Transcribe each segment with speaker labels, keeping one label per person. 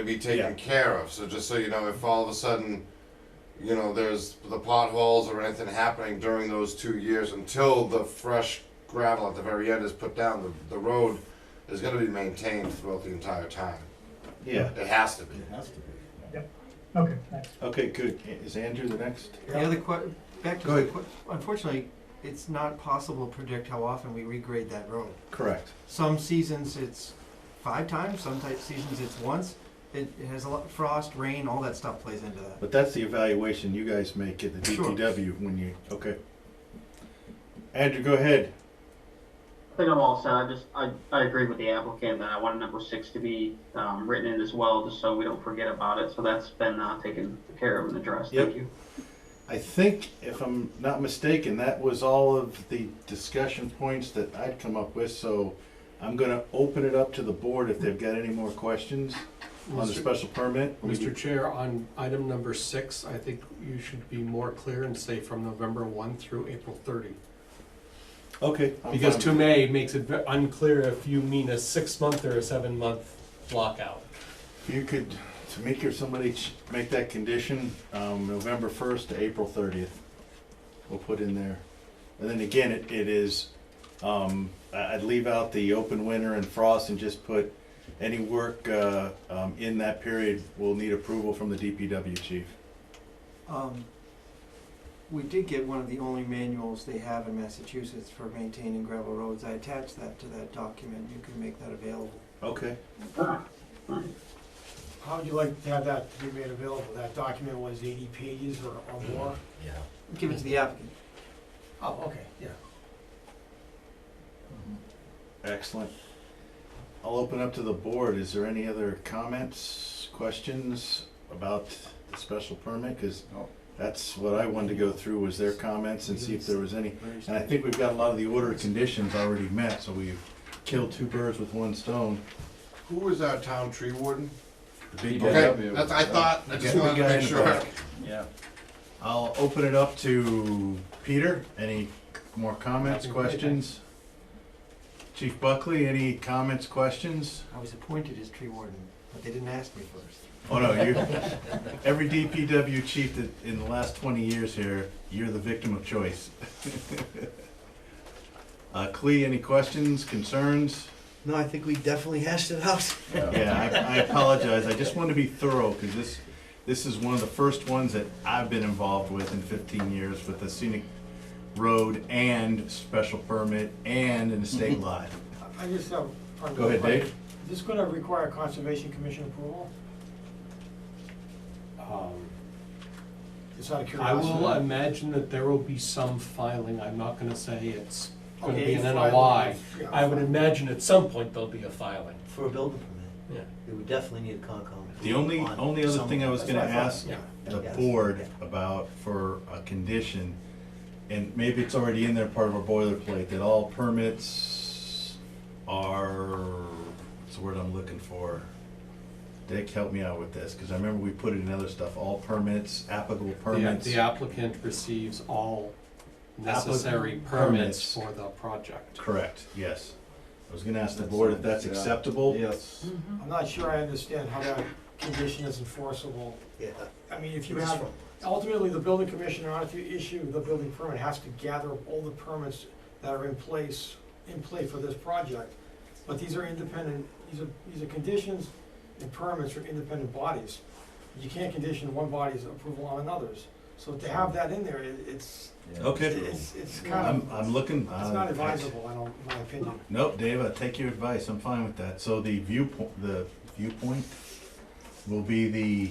Speaker 1: to be taken
Speaker 2: Yeah.
Speaker 1: care of. So just so you know, if all of a sudden, you know, there's the potholes or anything happening during those two years until the fresh gravel at the very end is put down, the, the road is going to be maintained throughout the entire time.
Speaker 2: Yeah,
Speaker 1: It has to be.
Speaker 2: it has to be.
Speaker 3: Yep. Okay, thanks.
Speaker 2: Okay, good. Is Andrew the next?
Speaker 4: The other que, back to
Speaker 2: Go
Speaker 4: the
Speaker 2: ahead.
Speaker 4: que, unfortunately, it's not possible to predict how often we regrade that road.
Speaker 2: Correct.
Speaker 4: Some seasons it's five times, some type seasons it's once. It, it has a lot, frost, rain, all that stuff plays into that.
Speaker 2: But that's the evaluation you guys make at the
Speaker 4: Sure.
Speaker 2: DTW when you, okay. Andrew, go ahead.
Speaker 5: I think I'm all set. I just, I, I agree with the applicant that I want number six to be, um, written in as well, just so we don't forget about it. So that's been, uh, taken care of and addressed.
Speaker 2: Yep.
Speaker 5: Thank you.
Speaker 2: I think, if I'm not mistaken, that was all of the discussion points that I'd come up with, so I'm gonna open it up to the board if they've got any more questions on the
Speaker 6: Mr.
Speaker 2: special permit.
Speaker 6: Mr. Chair, on item number six, I think you should be more clear and say from November one through April thirty.
Speaker 2: Okay. I'm
Speaker 6: Because
Speaker 2: fine.
Speaker 6: to May makes it ve- unclear if you mean a six-month or a seven-month blockout.
Speaker 2: You could, Tamika, or somebody ch- make that condition, um, November first to April thirtieth. We'll put in there. And then again, it, it is, um, I, I'd leave out the open winter and frost and just put any work, uh, um, in that period will need approval from the DPW chief.
Speaker 4: Um, we did get one of the only manuals they have in Massachusetts for maintaining gravel roads. I attached that to that document. You can make that available.
Speaker 2: Okay.
Speaker 7: How would you like to have that to be made available? That document was eighty pages or, or more?
Speaker 3: Yeah.
Speaker 4: Give it to the applicant.
Speaker 7: Oh, okay, yeah.
Speaker 2: Excellent. I'll open up to the board. Is there any other comments, questions about the special permit? Because
Speaker 7: No.
Speaker 2: that's what I wanted to go through, was their comments and see if there was any. And I think we've got a lot of the order of conditions already met, so we've killed two birds with one stone.
Speaker 1: Who was our town tree warden?
Speaker 2: The big
Speaker 1: Okay,
Speaker 2: guy-
Speaker 1: that's, I thought, I just
Speaker 2: Big
Speaker 1: wanted to
Speaker 2: guy in
Speaker 1: make
Speaker 2: the
Speaker 1: sure.
Speaker 2: back. Yeah. I'll open it up to Peter. Any more comments,
Speaker 6: Nothing further.
Speaker 2: questions? Chief Buckley, any comments, questions?
Speaker 4: I was appointed as tree warden, but they didn't ask me first.
Speaker 2: Oh no, you. Every DPW chief that in the last twenty years here, you're the victim of choice. uh, Clee, any questions, concerns?
Speaker 4: No, I think we definitely hashed it out.
Speaker 2: Yeah, I, I apologize. I just wanted to be thorough because this this is one of the first ones that I've been involved with in fifteen years with the scenic road and special permit and an estate lot.
Speaker 7: I just have. pardon
Speaker 2: Go
Speaker 7: me,
Speaker 2: ahead, Dave.
Speaker 7: Is this gonna require conservation commission approval?
Speaker 6: Um,
Speaker 7: Just out of
Speaker 6: I
Speaker 7: curiosity.
Speaker 6: will imagine that there will be some filing. I'm not gonna say it's gonna
Speaker 7: Okay,
Speaker 6: be an
Speaker 7: fine.
Speaker 6: NOI.
Speaker 7: Yeah,
Speaker 6: I would
Speaker 7: fine.
Speaker 6: imagine at some point there'll be a filing.
Speaker 8: For a building permit,
Speaker 6: Yeah.
Speaker 8: we would definitely need a Concom.
Speaker 2: The only
Speaker 8: on
Speaker 2: only other
Speaker 8: some-
Speaker 2: thing I was
Speaker 7: That's
Speaker 2: going to
Speaker 7: what I thought,
Speaker 2: ask
Speaker 6: yeah.
Speaker 2: the
Speaker 8: Yes.
Speaker 2: board about for a condition, and maybe it's already in there, part of our boilerplate, that all permits are, what's the word I'm looking for? Dick, help me out with this, because I remember we put it in other stuff, all permits, applicable
Speaker 6: The-
Speaker 2: permits.
Speaker 6: The applicant receives all necessary
Speaker 2: Applicant permits.
Speaker 6: permits for the project.
Speaker 2: Correct, yes. I was going to ask the board if that's
Speaker 1: Yeah.
Speaker 2: acceptable.
Speaker 8: Yes.
Speaker 7: I'm not sure I understand how that condition is enforceable.
Speaker 8: Yeah.
Speaker 7: I mean, if you have,
Speaker 8: From-
Speaker 7: ultimately, the building commissioner, in order to issue the building permit, has to gather up all the permits that are in place, in play for this project. But these are independent, these are, these are conditions and permits are independent bodies. You can't condition one body's approval on another's. So to have that in there, it- it's,
Speaker 2: Okay,
Speaker 7: it's, it's kind of,
Speaker 2: I'm, I'm uh, looking.
Speaker 7: it's not advisable, I don't, in my opinion.
Speaker 2: Nope, Dave, I take your advice, I'm fine with that. So the viewpoint, the viewpoint will be the,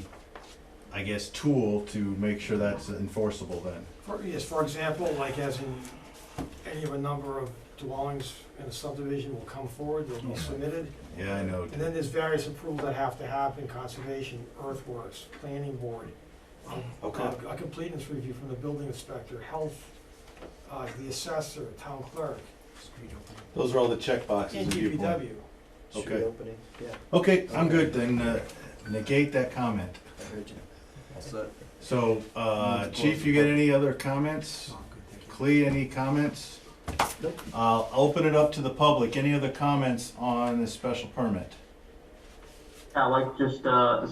Speaker 2: I guess, tool to make sure that's enforceable then.
Speaker 7: For, yes, for example, like as in any of a number of dwellings in a subdivision will come forward, they'll be submitted.
Speaker 2: Yeah, I know.
Speaker 7: And then there's various approvals that have to happen, conservation, earthworks, planning board. um,
Speaker 2: Okay.
Speaker 7: A completeness review from the building inspector, health, uh, the assessor, town clerk,
Speaker 2: Those are all the check boxes.
Speaker 7: and
Speaker 2: of viewpoint.
Speaker 7: DPW.
Speaker 8: street
Speaker 2: Okay.
Speaker 8: Opening, yeah,
Speaker 2: Okay, I'm good, then uh, negate that comment.
Speaker 8: I heard you.
Speaker 2: So, uh, chief, you got any other comments? Clee, any comments?
Speaker 8: Nope.
Speaker 2: I'll open it up to the public, any other comments on this special permit?
Speaker 5: I Yeah, like just, uh, the